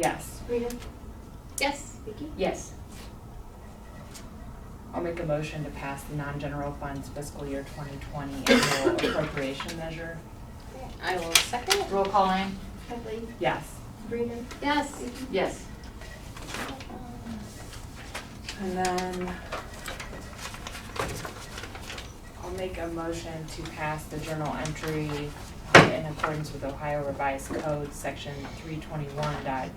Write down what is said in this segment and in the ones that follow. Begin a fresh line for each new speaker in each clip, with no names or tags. Yes,
Rita?
Yes.
Vicky?
yes. I'll make a motion to pass the non-general funds fiscal year 2020 annual appropriation measure.
I will second.
Roll call, Ann?
Kathleen?
Yes.
Rita?
Yes.
Yes.
And then I'll make a motion to pass the journal entry uh, in accordance with Ohio Revised Code, section three twenty-one dot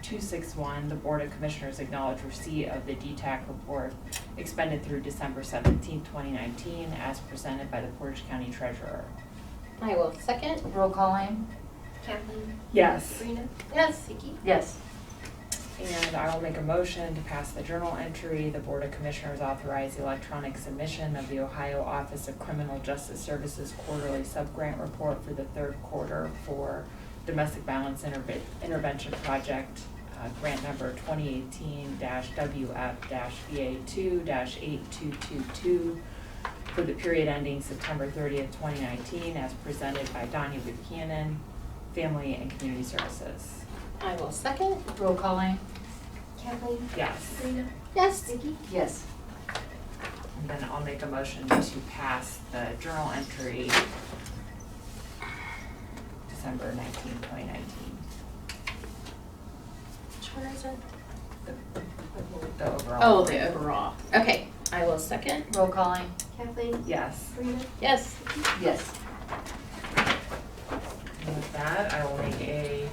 two six one. The Board of Commissioners acknowledge receipt of the DTAC report expended through December seventeenth, twenty nineteen, as presented by the Portage County Treasurer.
I will second.
Roll call, Ann?
Kathleen?
Yes.
Rita?
Yes. Vicky?
Yes.
And I will make a motion to pass the journal entry, the Board of Commissioners authorize the electronic submission of the Ohio Office of Criminal Justice Services Quarterly Subgrant Report for the third quarter for Domestic Violence Interve- Intervention Project, uh, grant number twenty eighteen WF VA two eight two two two for the period ending September thirtieth, twenty nineteen, as presented by Donnie Buchanan, Family and Community Services.
I will second.
Roll call, Ann?
Kathleen?
Yes.
Rita?
Yes.
Vicky?
Yes.
And then I'll make a motion to pass the journal entry December 19, 2019.
Which one is it?
The overall.
Oh, the overall. Okay, I will second.
Roll call, Ann?
Kathleen?
Yes.
Rita?
Yes.
Yes.
And with that, I will make a,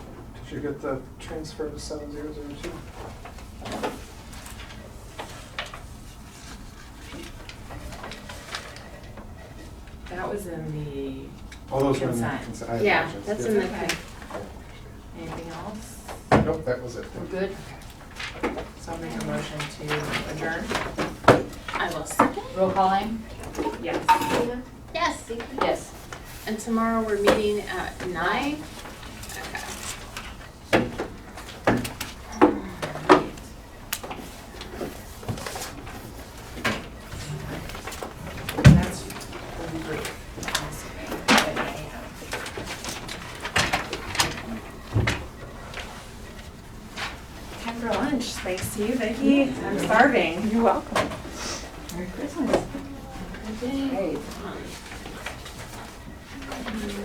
Did you get the transfer to seven zero zero two?
that was in
All those were in the
Consent.
consent. I
Yeah,
apologize.
that's
Yeah.
in
the- Okay.
the,
anything else?
Nope, that was it.
We're good?
So I'll make a motion to adjourn.
I will second.
Roll call, Ann?
Yes.
Rita?
Yes.
Vicky?
Yes.
And tomorrow we're meeting at nine. Okay.
That's really great. That I have. Time for lunch, thanks to you, Vicky. I'm starving. You're welcome.
Merry Christmas.
Okay.
Great.
Um,